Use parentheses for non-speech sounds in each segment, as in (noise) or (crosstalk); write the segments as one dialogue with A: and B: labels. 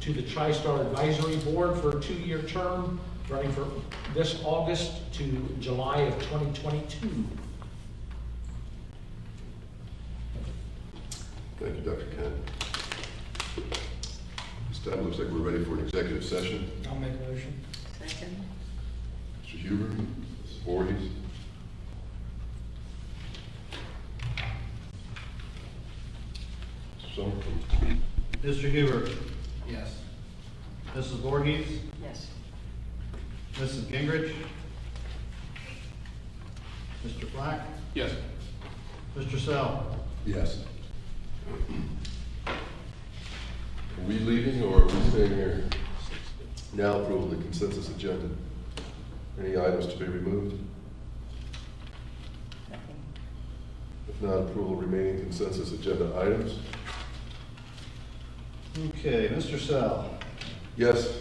A: to the TriStar Advisory Board for a two-year term, running from this August to July of 2022.
B: Thank you, Dr. Kent. This time, looks like we're ready for an executive session.
A: I'll make a motion.
C: Second.
B: Mr. Huber, Mrs. Voorhees. Mr. Summer.
D: Mr. Huber? Yes. Mrs. Voorhees?
C: Yes.
D: Mrs. Gingrich? Mr. Black?
B: Yes.
D: Mr. Sell?
B: Yes. Are we leaving or are we staying here? Now approval of the consensus agenda. Any items to be removed?
C: Nothing.
B: If not, approval of remaining consensus agenda items.
D: Okay, Mr. Sell?
B: Yes.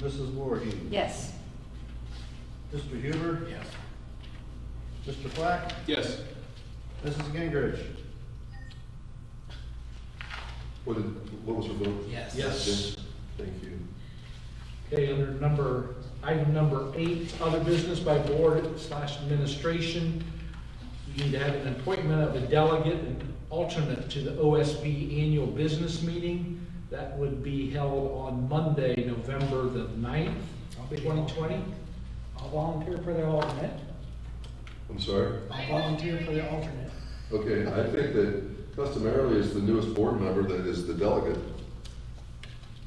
D: Mrs. Voorhees?
C: Yes.
D: Mr. Huber? Yes. Mr. Black?
B: Yes.
D: Mrs. Gingrich?
B: What did, what was your vote?
E: Yes.
A: Yes.
B: Thank you.
A: Okay, under number, item number eight, other business by board slash administration. We need to have an appointment of a delegate and alternate to the OSB annual business meeting. That would be held on Monday, November the ninth, twenty twenty.
E: I'll volunteer for the alternate.
B: I'm sorry?
E: I'll volunteer for the alternate.
B: Okay, I think that customarily it's the newest board member that is the delegate.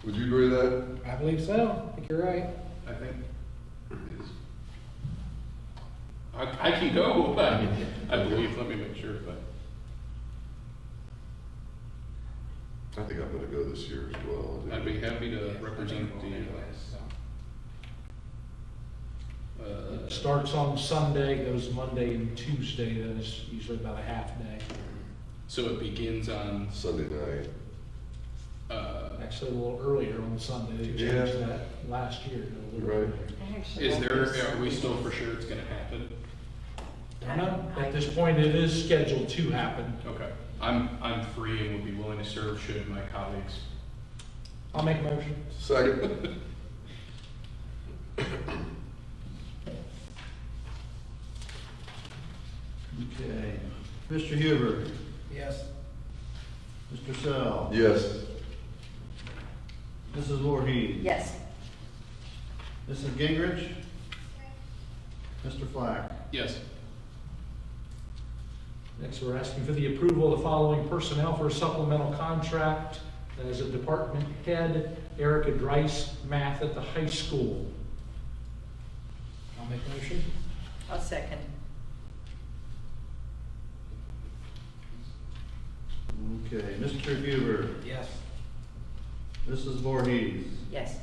B: Would you agree with that?
E: I believe so. I think you're right.
D: I think.
F: I, I can go, (laughs) but I believe, let me make sure, but
B: I think I'm gonna go this year as well.
F: I'd be happy to represent the, uh,
A: Starts on Sunday, goes Monday and Tuesday, that is usually about a half day.
F: so it begins on,
B: Sunday night.
F: uh,
A: Actually, a little earlier on Sunday, they changed
B: Yeah.
A: that last year. to a little
B: Right.
A: earlier.
F: is there, are we still for sure it's gonna happen?
A: I know, at this point, it is scheduled to happen.
F: Okay, I'm, I'm free and would be willing to serve should my colleagues.
A: I'll make a motion.
B: Second.
D: Okay. Mr. Huber?
E: Yes.
D: Mr. Sell?
B: Yes.
D: Mrs. Voorhees?
C: Yes.
D: Mrs. Gingrich? Mr. Black?
F: Yes,
A: Next, we're asking for the approval of the following personnel for a supplemental contract as a department head, Erica Drice, math at the high school.
E: I'll make a motion.
C: I'll second.
D: Okay, Mr. Huber?
E: Yes.
D: Mrs. Voorhees?
C: Yes.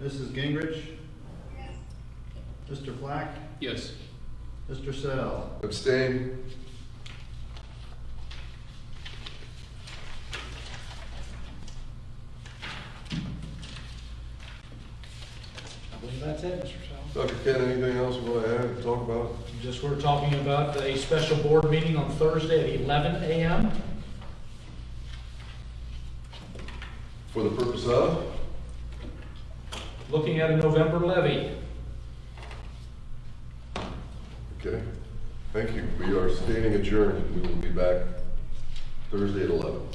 D: Mrs. Gingrich? Mr. Black?
F: yes,
D: Mr. Sell?
B: Abstain?
E: I believe that's it, Mr. Sal.
B: Dr. Kent, anything else you wanna add, talk about?
A: Just, we're talking about a special board meeting on Thursday at 11 a.m.
B: For the purpose of?
A: Looking at a November levy.
B: Okay. Thank you. We are standing adjourned. We will be back Thursday at eleven.